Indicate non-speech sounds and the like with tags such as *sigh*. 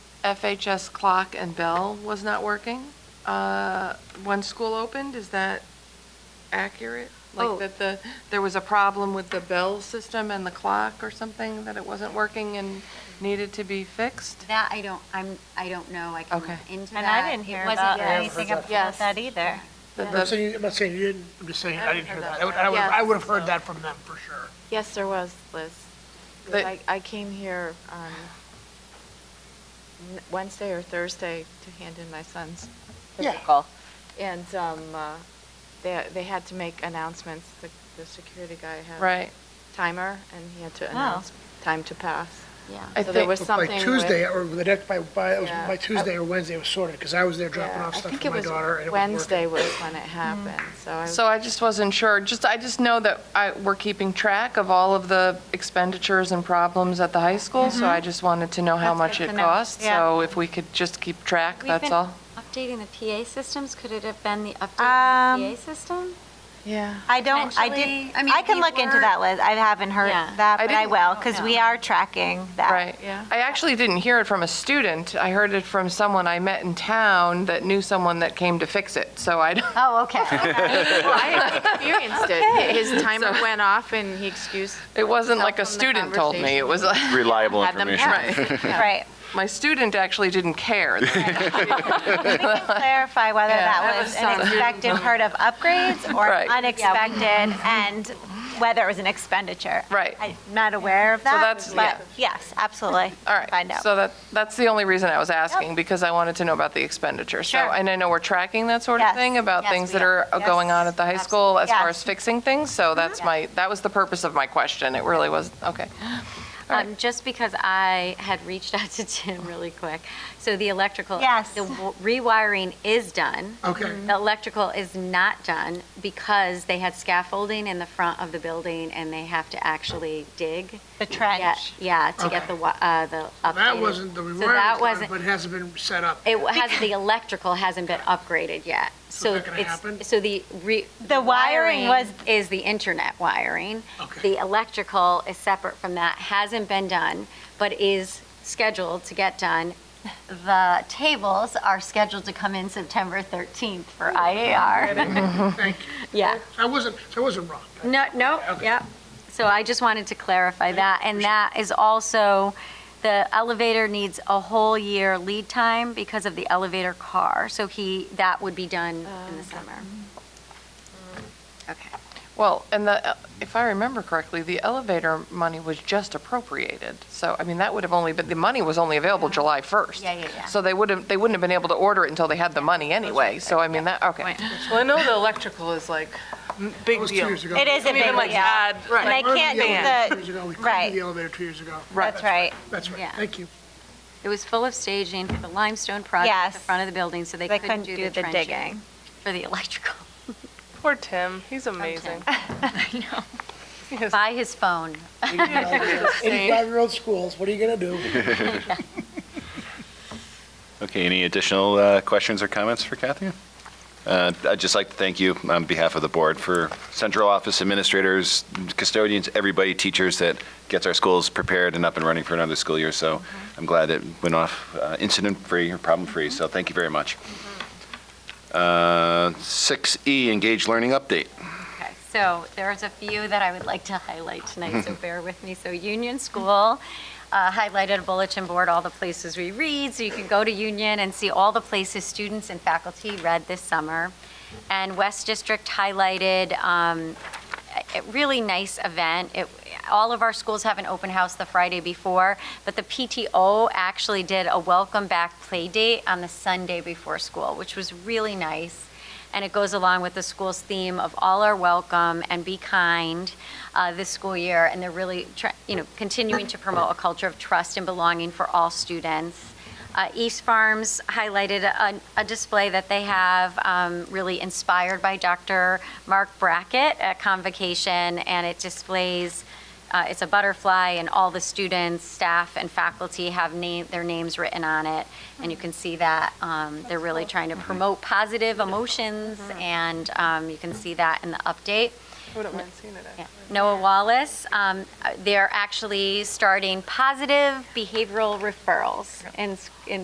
FHS clock and bell was not working uh, when school opened, is that accurate? Oh. Like that the, there was a problem with the bell system and the clock or something, that it wasn't working and needed to be fixed? That I don't, I'm, I don't know, I can Okay. look into that. And I didn't hear It wasn't about Yeah, I haven't anything heard about that. that either. That I'm the- not saying, I'm not saying you didn't, I'm just saying, I didn't hear that. I would- that. I would have heard that from them, for sure. Yes, there was, Liz. But- I, I came here on N- Wednesday or Thursday to hand in my son's Yeah. physical. And, um, uh, they, they had to make announcements, the, the security guy had. Right. Timer, and he had to announce time to pass. Yeah. I So there think- was But something By with- Tuesday, or the next, by, by, it was Yeah. by Tuesday or Wednesday, it was sorted, because I was there dropping Yeah, off I stuff think for it my was daughter, and it was working. Wednesday was when it happened, so I was. Mm. *laughs* So I just wasn't sure, just, I just know that I, we're keeping track of all of the expenditures and problems at the high school, so I just wanted to know how Mm-hmm. That's much good it to know. costs, Yeah. so if we could just keep track, that's all. Updating the PA systems, could it have been the on the update Um, PA PA system? Yeah. I don't, I Potentially, did, I mean, I can we look into were- that, Liz. I haven't heard Yeah. that, I but I didn't- will, because we are tracking that. Right. Yeah. I actually didn't hear it from a student. I heard it from someone I met in town that knew someone that came to fix it. So I, don't- Oh, *laughs* okay. *laughs* I experienced it. His timer went off and he excused. it wasn't himself like a from the student told me. It was like, reliable Had them information. pass. Right. *laughs* my student actually didn't *laughs* care. Clarify whether Yeah, that that was was an something. expected part of upgrades or Right. unexpected, and whether it was an expenditure. Right. I'm not aware of that, that's- yeah. but yes, absolutely. All right. Find out. So that, that's the only reason I was asking, because I wanted to know about the expenditure. So, Sure. and I know we're tracking that sort of Yes. thing about Yes, things we that are. are uh, going on at the high school as far Yes. Mm-hmm. as fixing things. So that's my, that was the purpose of my question. It really was, okay. Oh. Um, just because I had reached out *laughs* to Tim really quick. So the electrical. Yes. The w- rewiring is done. Okay. The electrical is not done because they had scaffolding in the front of the building and they have to actually dig. The Yeah, trench. yeah, to get the, wa- uh, the updated. That wasn't, the So rewire that was done, wasn't, but it hasn't been set up. it has, the electrical hasn't been upgraded yet. So that gonna happen? it's, so the re. The wiring was- Is the internet wiring. Okay. The electrical is separate from that, hasn't been done, but is scheduled to get done. The tables are scheduled to come in September 13th for IAR. Thank you. Yeah. I wasn't, so I *laughs* wasn't wrong. No, no, Okay. yeah. So I just wanted to clarify that, and that is also, the elevator needs a whole year lead time because of the elevator car, so he, that would be done in the summer. Okay. Well, and the, if I remember correctly, the elevator money was just appropriated. So, I mean, that would have only, but the money was only available July 1st. Yeah, yeah, yeah. So they would have, they wouldn't have been able to order it until they had the money anyway. So I mean, that, okay. Well, I know the electrical is like m- It big was two deal. years ago. It is a Even big like deal. add, And like, I can't We couldn't do do the elevator two years ago. We couldn't right. do the elevator two years ago. the, that's right. That's right, Yeah. thank *laughs* you. It was full of staging for the limestone project at the Yes. front of the building, so they They couldn't do the trenching. digging. For the electrical. poor Tim, he's amazing. *laughs* By his phone. 85-year-old schools, what are you going to do? Okay, any additional uh, questions or comments for Kathy? Uh, I'd just like to thank you on behalf of the board for central office administrators, custodians, everybody, teachers that gets our schools prepared and up and running for another school year. So I'm glad it went off uh, incident-free or problem-free, so thank you very much. Mm-hmm. Uh, 6E, Engage Learning Update. Okay, so there's a few that I would like to highlight tonight, so bear with me. So Union School uh, highlighted a bulletin board, all the places we read, so you can go to Union and see all the places students and faculty read this summer. And West District highlighted um, a a really nice event. It- All of our schools have an open house the Friday before, but the PTO actually did a welcome back play date on the Sunday before school, which was really nice and it goes along with the school's theme of all are welcome and be kind uh, this school year. And they're really, tr- you know, continuing to promote a culture of trust and belonging for all students. Uh, East Farms highlighted a, a display that they have um, really inspired by Dr. Mark Brackett at Convocation, and it displays. Uh, it's a butterfly, and all the students, staff, and faculty have name, their names written on it, and you can see that um, they're really trying to promote positive emotions, and um, you can see that in the update. Wouldn't mind seeing it, Yeah. Noah Wallace, um, uh, they're actually starting positive behavioral referrals in s- in